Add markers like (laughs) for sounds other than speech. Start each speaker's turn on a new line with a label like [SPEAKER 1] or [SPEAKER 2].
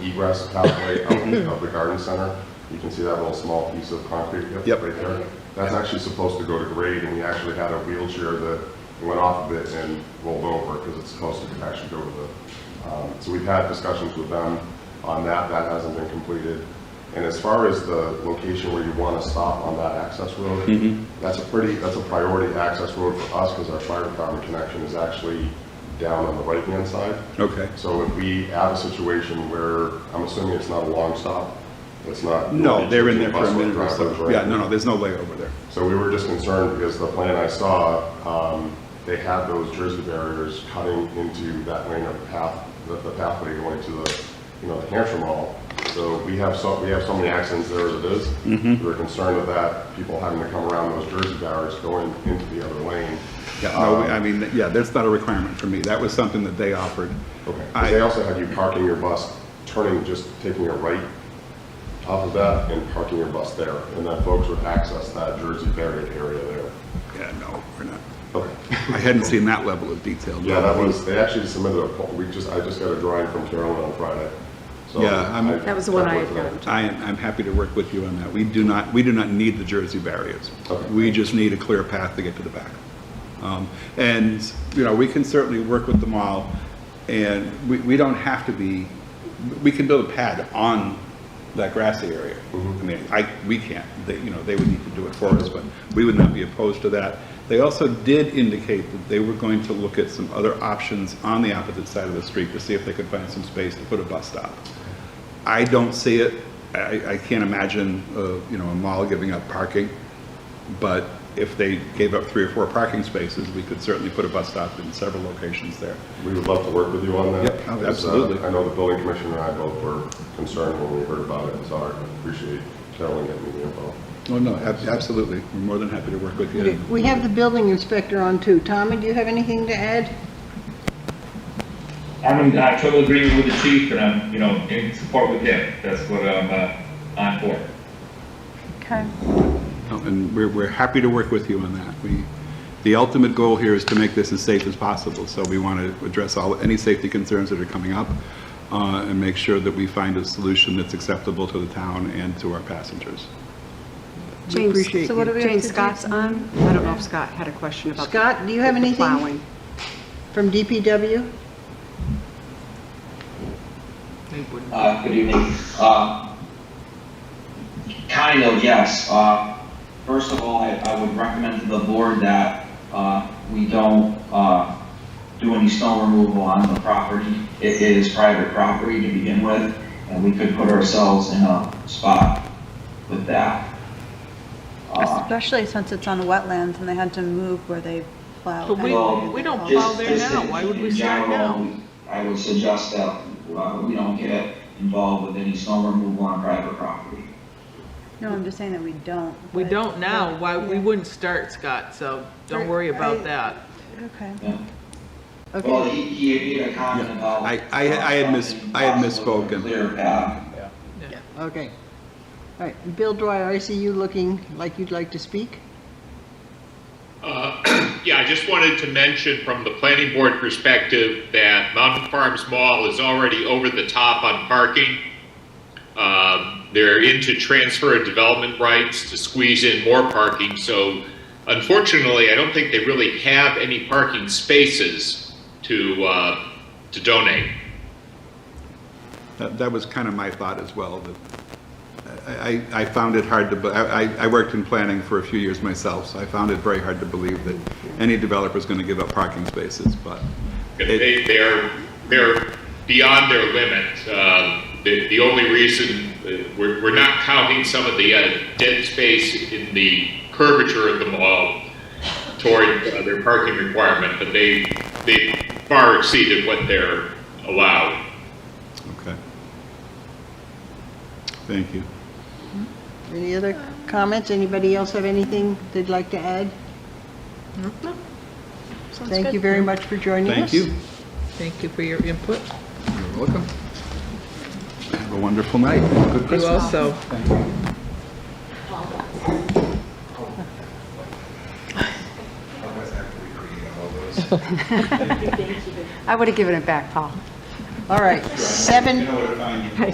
[SPEAKER 1] egress pathway of the garden center. You can see that little small piece of concrete right
[SPEAKER 2] Yep.
[SPEAKER 1] there. That's actually supposed to go to grade, and we actually had a wheelchair that went off of it and rolled over because it's supposed to actually go to the, um, so we've had discussions with them on that, that hasn't been completed. And as far as the location where you want to stop on that access road, that's a pretty, that's a priority access road for us because our fire department connection is actually down on the right-hand side.
[SPEAKER 2] Okay.
[SPEAKER 1] So if we have a situation where, I'm assuming it's not a long stop, it's not.
[SPEAKER 2] No, they're in there for a
[SPEAKER 1] Bus with
[SPEAKER 2] minute or
[SPEAKER 1] drivers,
[SPEAKER 2] so.
[SPEAKER 1] right?
[SPEAKER 2] Yeah, no, no, there's no layover there.
[SPEAKER 1] So we were just concerned because the plan I saw, um, they had those Jersey barriers cutting into that lane of path, the the pathway going to the, you know, the Hampshire Mall. So we have so, we have so many accidents there as it is.
[SPEAKER 2] Mm-hmm.
[SPEAKER 1] We We're concerned of that, people having to come around those Jersey barriers going into the other lane.
[SPEAKER 2] Yeah,
[SPEAKER 1] Uh,
[SPEAKER 2] no, I mean, yeah, that's not a requirement for me. That was something that they offered.
[SPEAKER 1] Okay, 'Cause
[SPEAKER 2] I-
[SPEAKER 1] they also had you parking your bus, turning, just taking a right off of that and parking your bus there, and then folks would access that Jersey barrier area there.
[SPEAKER 2] Yeah, no, we're not.
[SPEAKER 1] Okay.
[SPEAKER 2] I hadn't seen that level of detail.
[SPEAKER 1] (laughs) Yeah, that was, they actually submitted a, po- we just, I just got a drawing from Carolyn on Friday, so.
[SPEAKER 2] Yeah, I'm-
[SPEAKER 1] I-
[SPEAKER 3] That was the one I had
[SPEAKER 1] Yeah.
[SPEAKER 3] gotten.
[SPEAKER 2] I, am- I'm happy to work with you on that. We do not, we do not need the Jersey barriers.
[SPEAKER 1] Okay.
[SPEAKER 2] We just need a clear path to get to the back. Um, And, you know, we can certainly work with the mall, and we, we don't have to be, we can build a pad on that grassy area. I mean, I, we can't, they, you know, they would need to do it for us, but we would not be opposed to that. They also did indicate that they were going to look at some other options on the opposite side of the street to see if they could find some space to put a bus stop. I don't see it. I, I can't imagine, uh, you know, a mall giving up parking. But if they gave up three or four parking spaces, we could certainly put a bus stop in several locations there.
[SPEAKER 1] We would love to work with you on that.
[SPEAKER 2] Yep, oh,
[SPEAKER 1] because, uh,
[SPEAKER 2] absolutely.
[SPEAKER 1] I know the building commissioner and I both were concerned when we heard about it, so I appreciate Carolyn getting me the info.
[SPEAKER 2] Oh, no, ab- absolutely. We're more than happy to work with you.
[SPEAKER 4] We have the building inspector on too. Tommy, do you have anything to add?
[SPEAKER 5] I'm in uh, total agreement with the chief, and I'm, you know, in support with him. That's what I'm uh, on for.
[SPEAKER 4] Okay.
[SPEAKER 2] Oh, And we're, we're happy to work with you on that. We, the ultimate goal here is to make this as safe as possible. So we want to address all, any safety concerns that are coming up uh, and make sure that we find a solution that's acceptable to the town and to our passengers.
[SPEAKER 4] We appreciate
[SPEAKER 6] James,
[SPEAKER 4] you.
[SPEAKER 6] James Scott's on. I don't know if Scott had a question about.
[SPEAKER 4] Scott, do you have
[SPEAKER 6] the
[SPEAKER 4] anything?
[SPEAKER 6] plowing.
[SPEAKER 4] From DPW?
[SPEAKER 7] Uh, Good evening. Uh, Kind of, yes. Uh, First of all, I I would recommend to the board that uh, we don't uh, do any stone removal on the property. It is private property to begin with, and we could put ourselves in a spot with that. Uh,
[SPEAKER 8] Especially since it's on wetlands and they had to move where they plowed.
[SPEAKER 9] But we-
[SPEAKER 8] anyway.
[SPEAKER 7] we
[SPEAKER 9] don't
[SPEAKER 7] just-
[SPEAKER 9] plow there
[SPEAKER 7] just
[SPEAKER 9] now.
[SPEAKER 7] in-
[SPEAKER 9] Why would we
[SPEAKER 7] in
[SPEAKER 9] start
[SPEAKER 7] general,
[SPEAKER 9] now?
[SPEAKER 7] I would suggest that uh, we don't get involved with any stone removal on private property.
[SPEAKER 8] No, I'm just saying that we don't.
[SPEAKER 9] We
[SPEAKER 8] but-
[SPEAKER 9] don't now, why, we
[SPEAKER 8] Yeah.
[SPEAKER 9] wouldn't start, Scott, so don't worry about that.
[SPEAKER 8] Okay.
[SPEAKER 7] Yeah. Well,
[SPEAKER 4] Okay.
[SPEAKER 7] he, he had made a comment about. uh,
[SPEAKER 2] I- I- I had mis- I had misspoken.
[SPEAKER 7] Clear path.
[SPEAKER 4] Okay. All right. Bill Dwyer, I see you looking like you'd like to speak.
[SPEAKER 10] Uh, (clears throat) Yeah, I just wanted to mention from the planning board perspective that Mountain Farms Mall is already over the top on parking. Um, They're into transfer of development rights to squeeze in more parking, so unfortunately, I don't think they really have any parking spaces to, uh, to donate.
[SPEAKER 2] That, that was kind of my thought as well, that I, I I found it hard to, be- I, I- I worked in planning for a few years myself, so I found it very hard to believe that any developer's going to give up parking spaces, but it,
[SPEAKER 10] They, they're, they're beyond their limit. Um, The, the only reason, uh, we're, we're not counting some of the uh, dead space in the curvature of the mall toward uh, their parking requirement, but they, they far exceeded what they're allowed.
[SPEAKER 2] okay. Thank you.
[SPEAKER 4] Any other comments? Anybody else have anything they'd like to add? Thank you very much for joining us.
[SPEAKER 2] Thank you.
[SPEAKER 9] Thank you for your input.
[SPEAKER 2] You're welcome. Have a wonderful night. Good
[SPEAKER 9] You
[SPEAKER 2] Christmas.
[SPEAKER 9] also,
[SPEAKER 6] I would have given it back, Paul.
[SPEAKER 4] All right. Seven
[SPEAKER 2] where to find you.